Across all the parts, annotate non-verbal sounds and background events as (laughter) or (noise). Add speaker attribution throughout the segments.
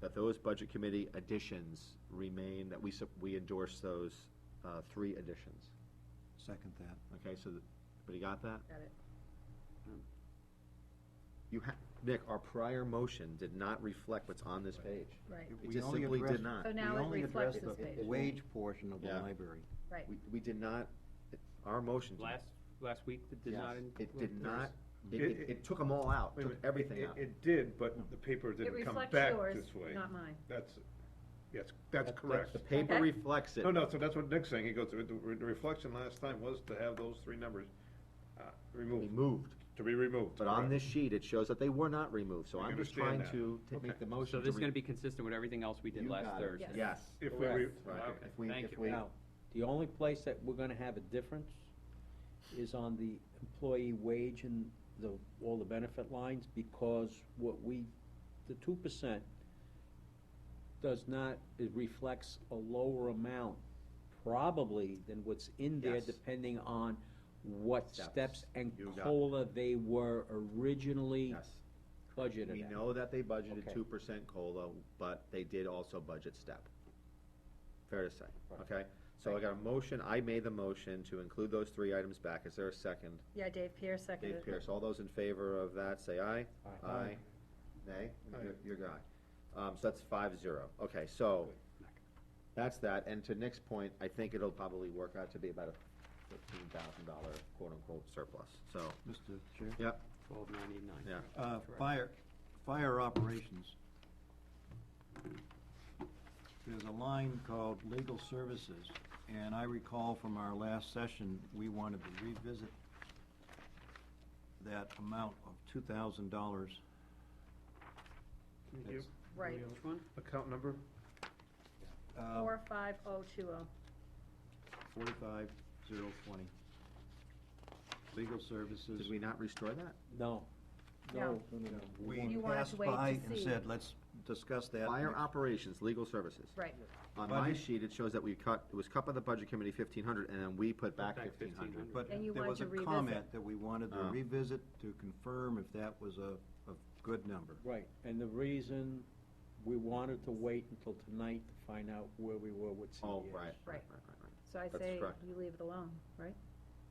Speaker 1: that those budget committee additions remain, that we, sup- we endorse those uh, three additions.
Speaker 2: Second that.
Speaker 1: Okay, so, th- everybody got that?
Speaker 3: Got it.
Speaker 1: You ha, Nick, our prior motion did not reflect what's on this page.
Speaker 3: Right,
Speaker 2: It-
Speaker 1: It
Speaker 2: we
Speaker 1: just
Speaker 2: only
Speaker 1: simply did
Speaker 2: addressed-
Speaker 1: not.
Speaker 3: So now
Speaker 2: we
Speaker 3: it
Speaker 2: only
Speaker 3: reflects
Speaker 2: addressed
Speaker 3: this
Speaker 2: the
Speaker 3: page.
Speaker 2: Wage portion of the
Speaker 1: Yeah.
Speaker 2: library.
Speaker 3: right.
Speaker 1: We, we did not, it- our motion. did-
Speaker 4: Last, last week, that did not.
Speaker 1: Yes.
Speaker 4: in-
Speaker 1: It did not, it,
Speaker 5: It-
Speaker 1: it- it took them all out,
Speaker 5: Wait a
Speaker 1: took
Speaker 5: minute.
Speaker 1: everything
Speaker 5: It-
Speaker 1: out.
Speaker 5: It did, but the paper
Speaker 3: It
Speaker 5: didn't come
Speaker 3: reflects
Speaker 5: back
Speaker 3: yours,
Speaker 5: this way.
Speaker 3: not mine.
Speaker 5: That's, yes,
Speaker 1: That-
Speaker 5: that's
Speaker 1: that-
Speaker 5: correct.
Speaker 1: The paper
Speaker 3: Okay.
Speaker 1: reflects it.
Speaker 5: No, no, so that's what Nick's saying, he goes, the the reflection last time was to have those three numbers uh, removed,
Speaker 1: Removed,
Speaker 5: to be removed.
Speaker 1: but on
Speaker 5: correct.
Speaker 1: this sheet, it shows that they were not removed, so
Speaker 5: I
Speaker 1: I'm just trying
Speaker 5: understand
Speaker 1: to to
Speaker 5: Okay.
Speaker 1: make the
Speaker 4: So
Speaker 1: motion.
Speaker 4: this is
Speaker 1: re-
Speaker 4: gonna be consistent with everything else we did
Speaker 1: You
Speaker 4: last
Speaker 1: got it.
Speaker 4: Thursday.
Speaker 3: Yes.
Speaker 1: Yes.
Speaker 5: If we,
Speaker 6: Correct.
Speaker 5: re-
Speaker 1: Right,
Speaker 5: okay.
Speaker 1: if we,
Speaker 4: Thank
Speaker 1: if
Speaker 4: you.
Speaker 1: we,
Speaker 6: Now, the only place that we're gonna have a difference is on the employee wage and the, all the benefit lines, because what we, the two percent does not, it reflects a lower amount, probably, than what's in there,
Speaker 1: Yes.
Speaker 6: depending on what
Speaker 1: Steps.
Speaker 6: steps and
Speaker 1: You got it.
Speaker 6: COLA they were originally
Speaker 1: yes.
Speaker 6: budgeted at.
Speaker 1: We know that they budgeted
Speaker 6: Okay.
Speaker 1: two percent COLA, but they did also budget step. Fair to say,
Speaker 6: Right.
Speaker 1: okay? So I got a motion, I made the motion to include those three items back. Is there a second?
Speaker 3: Yeah, Dave Pierce seconded.
Speaker 1: Dave Pierce, all those in favor of that, say aye.
Speaker 6: Aye.
Speaker 1: Nay?
Speaker 5: Aye.
Speaker 1: Your- Your guy. Um, so that's five zero. Okay, so that's that. And to Nick's point, I think it'll probably work out to be about a fifteen thousand dollar quote-unquote surplus. So,
Speaker 2: Mr. Chair?
Speaker 1: yep,
Speaker 4: Twelve ninety-nine.
Speaker 1: Yeah.
Speaker 2: Uh,
Speaker 4: Correct.
Speaker 2: fire, fire operations. There's a line called legal services, and I recall from our last session, we wanted to revisit that amount of two thousand dollars.
Speaker 5: Thank you.
Speaker 3: Right,
Speaker 4: Which one?
Speaker 5: Account number?
Speaker 2: uh,
Speaker 3: four, five, oh, two, oh.
Speaker 2: Forty-five, zero, twenty. Legal services.
Speaker 1: did we not restore that?
Speaker 6: No, no, no, no, no.
Speaker 2: We
Speaker 3: You wanted to
Speaker 2: passed
Speaker 3: wait to
Speaker 2: by and
Speaker 3: see.
Speaker 2: said, let's discuss that.
Speaker 1: Fire
Speaker 2: next-
Speaker 1: operations, legal services.
Speaker 3: right.
Speaker 1: On my
Speaker 2: Budget.
Speaker 1: sheet, it shows that we cut, it was cut by the budget committee fifteen hundred, and then we put back
Speaker 4: Back
Speaker 1: fifteen hundred.
Speaker 4: 1,500.
Speaker 2: But
Speaker 3: And you
Speaker 2: there
Speaker 3: wanted
Speaker 2: was a
Speaker 3: to revisit.
Speaker 2: comment that we wanted to
Speaker 1: Oh.
Speaker 2: revisit to confirm if that was a, a good number.
Speaker 6: Right, and the reason we wanted to wait until tonight to find out where we were with CES.
Speaker 1: Oh, right, right, right,
Speaker 3: Right.
Speaker 1: right, right.
Speaker 3: So I
Speaker 1: That's
Speaker 3: say
Speaker 1: correct.
Speaker 3: you leave it alone, right?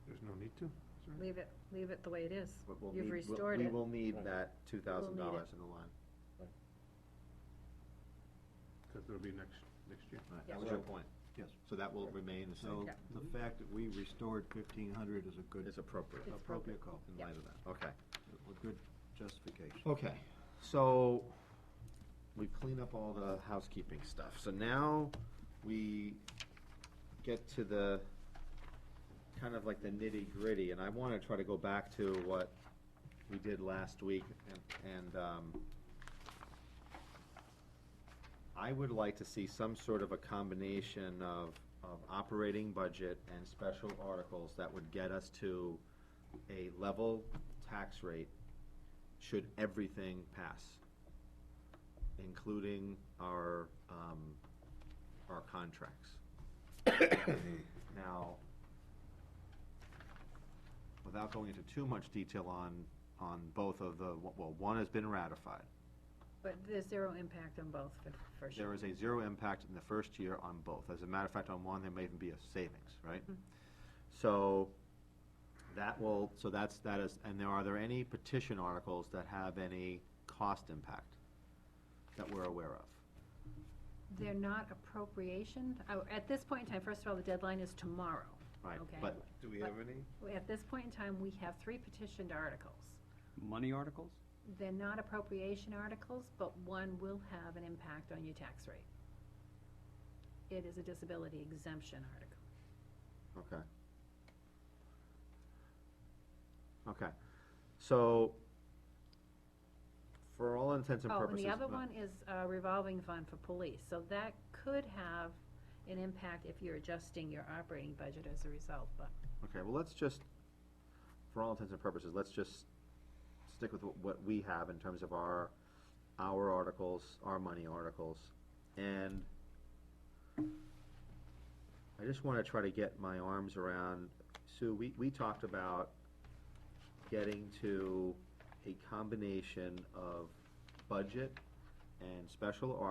Speaker 5: There's no need to. is there?
Speaker 3: Leave it, leave it the way it is.
Speaker 1: But we'll
Speaker 3: You've
Speaker 1: need- we'll-
Speaker 3: restored
Speaker 1: We
Speaker 3: it.
Speaker 1: will need
Speaker 6: Right.
Speaker 1: that two thousand dollars in the line.
Speaker 5: Cause it'll be next, next year.
Speaker 1: Right,
Speaker 3: Yeah.
Speaker 1: That was your point.
Speaker 2: Yes.
Speaker 1: So that will remain the
Speaker 2: So
Speaker 1: same.
Speaker 3: Yeah.
Speaker 2: the fact that we restored fifteen hundred is a good,
Speaker 1: It's appropriate
Speaker 3: It's appropriate.
Speaker 2: appropriate call,
Speaker 1: in
Speaker 3: Yeah.
Speaker 1: light of that. Okay.
Speaker 2: a good justification.
Speaker 1: Okay, so we clean up all the housekeeping stuff. So now we get to the, kind of like the nitty gritty, and I wanna try to go back to what we did last week and, and, um, I would like to see some sort of a combination of, of operating budget and special articles that would get us to a level tax rate should everything pass, including our, um, our contracts. (coughs) Now, without going into too much detail on, on both of the, well, one has been ratified.
Speaker 3: But there's zero impact on both, for- for
Speaker 1: There
Speaker 3: sure.
Speaker 1: is a zero impact in the first year on both. As a matter of fact, on one, there may even be a savings, right?
Speaker 3: Mm-hmm.
Speaker 1: So that will, so that's, that is, and there, are there any petition articles that have any cost impact that we're aware of?
Speaker 3: They're not appropriation. Oh, At this point in time, first of all, the deadline is tomorrow.
Speaker 1: Right,
Speaker 3: Okay.
Speaker 1: but
Speaker 5: Do we have any?
Speaker 3: At this point in time, we have three petitioned articles.
Speaker 4: Money articles?
Speaker 3: They're not appropriation articles, but one will have an impact on your tax rate. It is a disability exemption article.
Speaker 1: Okay. Okay, so for all intents and
Speaker 3: Oh,
Speaker 1: purposes.
Speaker 3: and the other
Speaker 1: uh,
Speaker 3: one is uh, revolving fund for police, so that could have an impact if you're adjusting your operating budget as a result, but.
Speaker 1: Okay, well, let's just, for all intents and purposes, let's just stick with wh- what we have in terms of our, our articles, our money articles, and I just wanna try to get my arms around, Sue, we, we talked about getting to a combination of budget and special articles.